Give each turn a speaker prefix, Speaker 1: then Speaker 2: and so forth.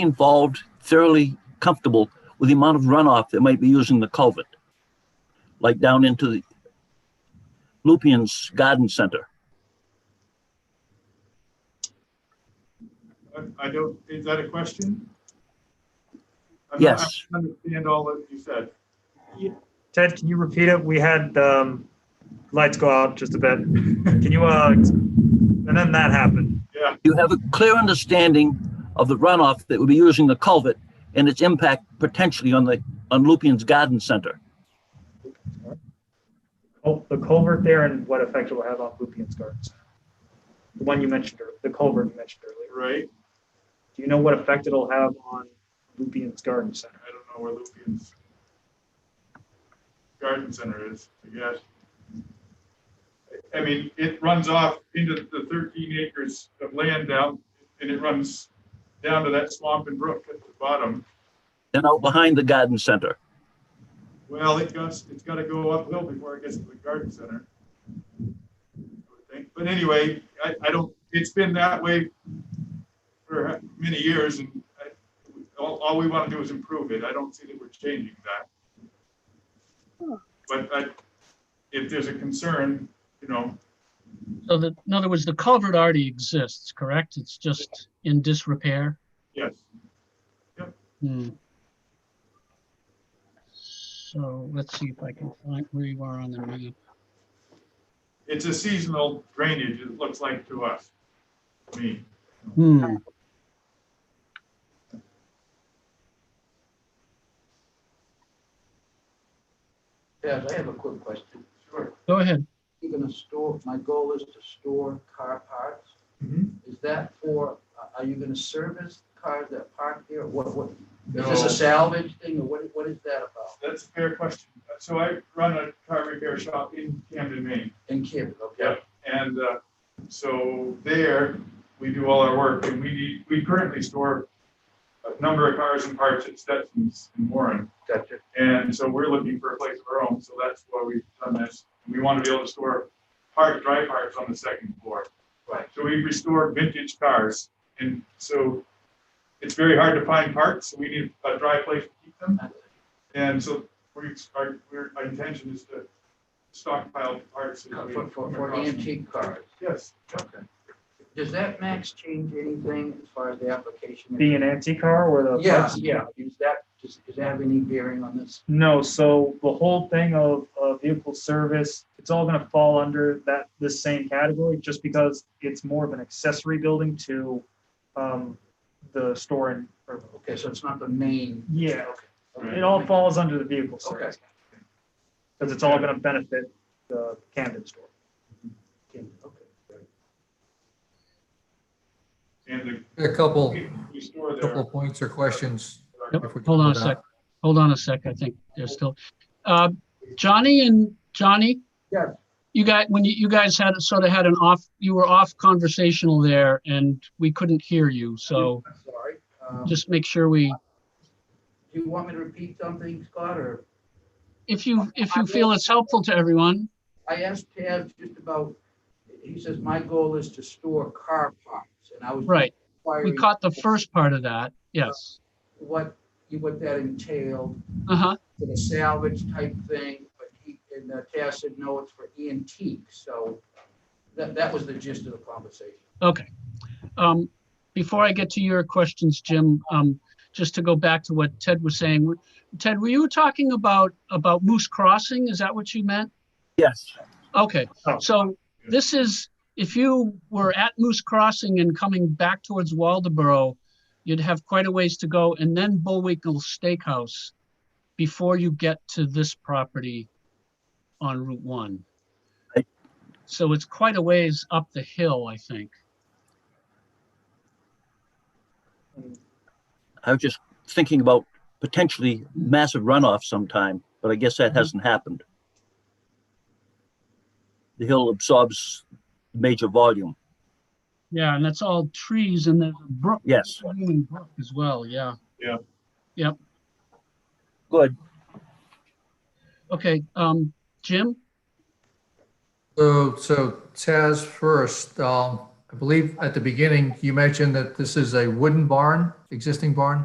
Speaker 1: involved thoroughly comfortable with the amount of runoff that might be using the culvert, like down into the Lupien's Garden Center.
Speaker 2: I- I don't, is that a question? I'm not-
Speaker 1: Yes.
Speaker 2: I don't Understand all that you said.
Speaker 3: Ted, can you repeat it? We had um, lights go out just a bit. Can you, uh, and then that happened.
Speaker 2: Yeah,
Speaker 1: You have a clear understanding of the runoff that would be using the culvert and its impact potentially on the, on Lupien's Garden Center.
Speaker 3: Oh, the culvert there and what effect it will have on Lupien's Gardens. The one you mentioned, ear- the culvert you mentioned earlier.
Speaker 2: right.
Speaker 3: Do you know what effect it'll have on Lupien's Garden Center?
Speaker 2: I don't know where Lupien's garden center is, I guess. I I mean, it runs off into the thirteen acres of land down, and it runs down to that swamp and brook at the bottom.
Speaker 1: Then out behind the garden center.
Speaker 2: Well, it goes, it's gotta go uphill before it gets to the garden center. I would think. But anyway, I, I don't, it's been that way for many years and I, all, all we wanna do is improve it. I don't see that we're changing that. But I, if there's a concern, you know,
Speaker 4: So that, in other words, the culvert already exists, correct? It's just in disrepair?
Speaker 2: yes,
Speaker 4: Hmm. So let's see if I can find where you are on the map.
Speaker 2: it's a seasonal drainage, it looks like to us, to me.
Speaker 4: Hmm.
Speaker 5: Yes, I have a quick question.
Speaker 2: Sure.
Speaker 4: Go ahead.
Speaker 5: You're gonna store, my goal is to store car parts. Is that for, uh, are you gonna service cars that park there? What, what, is this
Speaker 2: No.
Speaker 5: a salvage thing or what, what is that about?
Speaker 2: That's a fair question. So I run a car repair shop in Camden, Maine.
Speaker 5: In Camden, okay?
Speaker 2: Yep, and uh, so there, we do all our work, and we, we currently store a number of cars and parts at Stetson's in Warren.
Speaker 5: Gotcha.
Speaker 2: And so we're looking for a place of our own, so that's why we've done this. We want to be able to store part, dry parts on the second floor.
Speaker 5: Right.
Speaker 2: So we restore vintage cars, and so it's very hard to find parts, so we need a dry place to keep them. And so we, our, we're- our intention is to stockpile parts. as we
Speaker 5: Uh, For, for,
Speaker 2: come
Speaker 5: for E
Speaker 2: across them.
Speaker 5: antique cars.
Speaker 2: Yes.
Speaker 5: Okay. Does that max change anything as far as the application?
Speaker 3: Be an antique car or the?
Speaker 5: Yeah,
Speaker 3: parts?
Speaker 5: yeah. Is that, does, does that have any bearing on this?
Speaker 3: No, so the whole thing of, uh vehicle service, it's all gonna fall under that, this same category, just because it's more of an accessory building to, um, the store and, or,
Speaker 5: Okay, so it's not the main.
Speaker 3: yeah,
Speaker 5: Okay.
Speaker 3: it all falls under the vehicle
Speaker 5: Okay.
Speaker 3: service, because it's all gonna benefit the Camden store.
Speaker 5: Camden, okay.
Speaker 2: And
Speaker 6: A couple,
Speaker 2: the, we store there.
Speaker 6: couple points or questions.
Speaker 4: Yep,
Speaker 6: if we can
Speaker 4: Hold on a
Speaker 6: go down.
Speaker 4: sec. Hold on a sec. I think they're still, uh, Johnny and Johnny?
Speaker 5: Yes.
Speaker 4: You guys, when you, you guys had, sort of had an off, you were off conversational there and we couldn't hear you. So
Speaker 5: I'm Sorry. Um,
Speaker 4: just make sure we,
Speaker 5: Do you want me to repeat something, Scott, or
Speaker 4: if you, if you feel it's helpful to everyone,
Speaker 5: I asked Taz just about, he says, my goal is to store car parts, and I was.
Speaker 4: right. We
Speaker 5: inquiring
Speaker 4: caught the first part of that. Yes.
Speaker 5: What, what that entailed,
Speaker 4: Uh-huh.
Speaker 5: for the salvage type thing, but he, and uh, Taz said, no, it's for antique, so that, that was the gist of the conversation.
Speaker 4: Okay. Um, Before I get to your questions, Jim, um, just to go back to what Ted was saying. Ted, were you talking about, about Moose Crossing? Is that what you meant?
Speaker 1: Yes.
Speaker 4: Okay,
Speaker 3: Oh.
Speaker 4: so this is, if you were at Moose Crossing and coming back towards Waldeboro, you'd have quite a ways to go and then Bullwinkle Steakhouse before you get to this property on Route One.
Speaker 1: Right.
Speaker 4: So it's quite a ways up the hill, I think.
Speaker 1: I was just thinking about potentially massive runoff sometime, but I guess that hasn't happened. The hill absorbs major volume.
Speaker 4: Yeah, and that's all trees and there's a brook.
Speaker 1: Yes,
Speaker 4: Rolling Brook As well, yeah.
Speaker 1: good.
Speaker 4: Okay, um, Jim?
Speaker 6: So, so Taz first, um, I believe at the beginning, you mentioned that this is a wooden barn. existing barn?